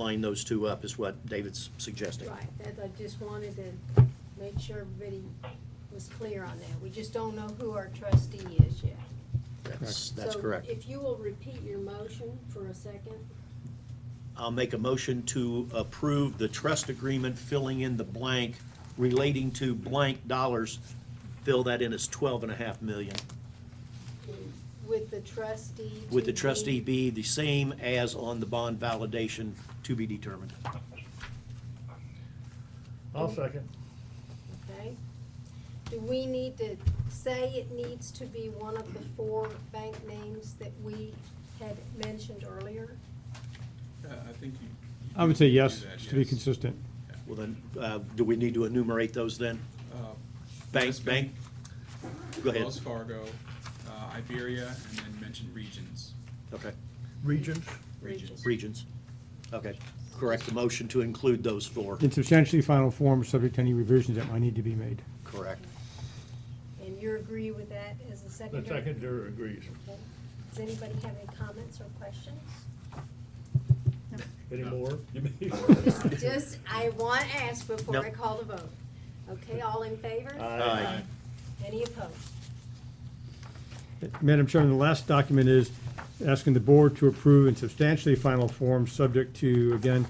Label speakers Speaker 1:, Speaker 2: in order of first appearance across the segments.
Speaker 1: line those two up is what David's suggesting.
Speaker 2: Right, that, I just wanted to make sure everybody was clear on that. We just don't know who our trustee is yet.
Speaker 1: That's, that's
Speaker 2: So
Speaker 1: correct.
Speaker 2: if you will repeat your motion for a second,
Speaker 1: I'll make a motion to approve the trust agreement filling in the blank relating to blank dollars. Fill that in as twelve and a half million,
Speaker 2: with the trustee.
Speaker 1: with
Speaker 2: to
Speaker 1: the
Speaker 2: be-
Speaker 1: trustee be the same as on the bond validation to be determined.
Speaker 3: I'll second.
Speaker 2: Okay. Do we need to say it needs to be one of the four bank names that we had mentioned earlier?
Speaker 4: Yeah, I think you.
Speaker 5: I would say
Speaker 4: you
Speaker 5: yes,
Speaker 4: do that,
Speaker 5: to be
Speaker 4: yes.
Speaker 5: consistent.
Speaker 1: Well, then, uh, do we need to enumerate those then?
Speaker 4: Uh,
Speaker 1: Bank,
Speaker 4: West
Speaker 1: bank? Go ahead.
Speaker 4: Wells Fargo, uh, Iberia, and then mention regions.
Speaker 1: Okay,
Speaker 3: Regents?
Speaker 4: Regions.
Speaker 1: regions. Okay, correct the motion to include those four.
Speaker 5: In substantially final form, subject to any revisions that might need to be made.
Speaker 1: Correct.
Speaker 2: And you agree with that as a
Speaker 3: The
Speaker 2: secondary?
Speaker 3: seconder agrees.
Speaker 2: Okay. Does anybody have any comments or questions?
Speaker 3: Any more?
Speaker 2: Just, I want to ask before I
Speaker 1: Nope.
Speaker 2: call the vote. Okay, all in favor?
Speaker 1: Aye.
Speaker 2: Any opposed?
Speaker 5: Madam Chairman, the last document is asking the board to approve in substantially final form, subject to, again,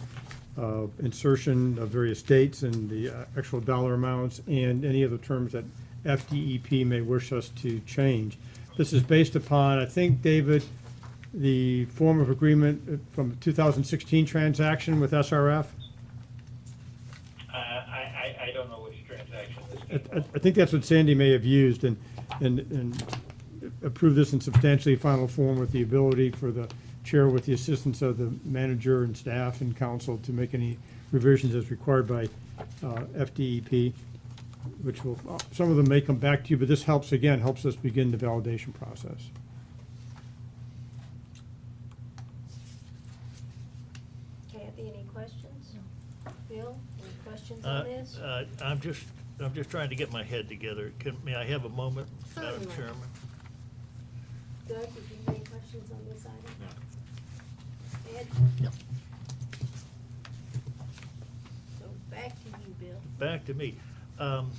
Speaker 5: uh, insertion of various dates and the uh, actual dollar amounts and any other terms that FDEP may wish us to change. This is based upon, I think, David, the form of agreement from 2016 transaction with SRF?
Speaker 6: Uh, I, I, I don't know which transaction this
Speaker 5: I,
Speaker 6: came
Speaker 5: I- I think that's what Sandy may have used and, and, and approve this in substantially final form with the ability for the chair with the assistance of the manager and staff and council to make any revisions as required by, uh, FDEP, which will, uh, some of them may come back to you, but this helps, again, helps us begin the validation process.
Speaker 2: Kathy, any questions? Bill, any questions
Speaker 7: Uh,
Speaker 2: on this?
Speaker 7: uh, I'm just, I'm just trying to get my head together. Can, may I have a moment, Madam
Speaker 2: Certainly.
Speaker 7: Chairman?
Speaker 2: Doug, did you have any questions on this item? Ed?
Speaker 1: No.
Speaker 2: So back to you, Bill.
Speaker 7: Back to me. Um,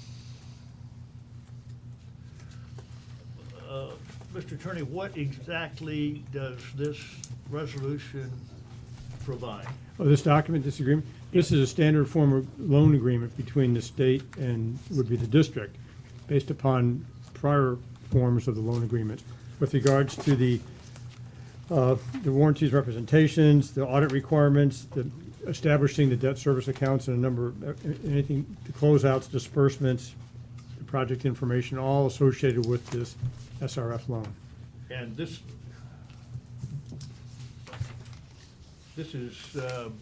Speaker 7: uh, Mr. Attorney, what exactly does this resolution provide?
Speaker 5: Oh, this document, this agreement? This is a standard form of loan agreement between the state and would be the district, based upon prior forms of the loan agreement. With regards to the, uh, the warranties, representations, the audit requirements, the establishing the debt service accounts and a number, of anything, the closeouts, disbursements, the project information, all associated with this SRF loan.
Speaker 7: And this, this is, um,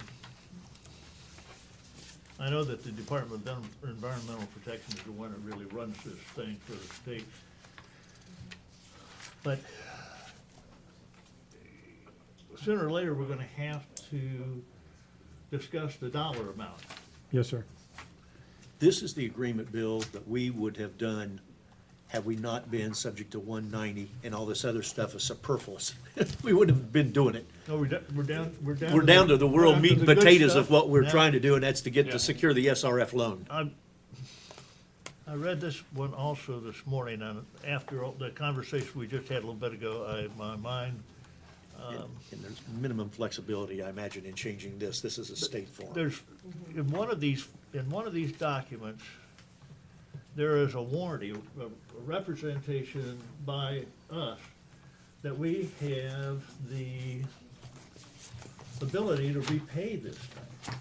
Speaker 7: I know that the Department of Envi- Environmental Protection is the one that really runs this thing for the state. But sooner or later, we're gonna have to discuss the dollar amount.
Speaker 5: Yes, sir.
Speaker 1: This is the agreement, Bill, that we would have done had we not been subject to 190 and all this other stuff is superfluous. We wouldn't have been doing it.
Speaker 7: No, we're down, we're down, we're down.
Speaker 1: We're down to the world
Speaker 7: down
Speaker 1: meat and
Speaker 7: the good
Speaker 1: potatoes of
Speaker 7: stuff.
Speaker 1: what we're
Speaker 7: Now-
Speaker 1: trying to do, and that's to get,
Speaker 7: Yeah.
Speaker 1: to secure the SRF loan.
Speaker 7: I, I read this one also this morning, and after all the conversation we just had a little bit ago, I, my mind, Um,
Speaker 1: And there's minimum flexibility, I imagine, in changing this. This is a state form.
Speaker 7: there's, in one of these, in one of these documents, there is a warranty, a a representation by us that we have the ability to repay this thing.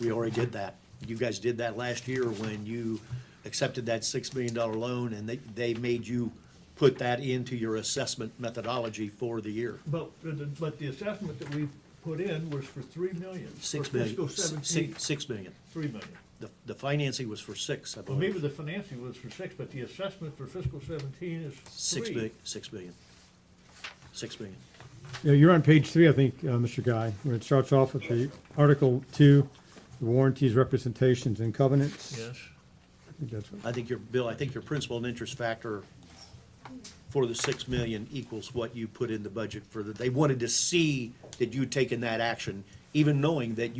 Speaker 1: We already did that. You guys did that last year when you accepted that $6 million loan, and they, they made you put that into your assessment methodology for the year.
Speaker 7: But, but the assessment that we put in was for three million. for
Speaker 1: Six million.
Speaker 7: Fiscal
Speaker 1: S- six-
Speaker 7: seventeen,
Speaker 1: Six million.
Speaker 7: three million.
Speaker 1: The, the financing was for six, I
Speaker 7: Well, maybe
Speaker 1: believe.
Speaker 7: the financing was for six, but the assessment for fiscal seventeen is
Speaker 1: Six
Speaker 7: three.
Speaker 1: million, six million. Six million.
Speaker 5: Yeah, you're on page three, I think, uh, Mr. Guy, where it starts off with the Article Two, the warranties, representations, and covenants.
Speaker 7: Yes,
Speaker 5: I think that's what-
Speaker 1: I think your, Bill, I think your principal and interest factor for the six million equals what you put in the budget for the, they wanted to see that you'd taken that action, even knowing that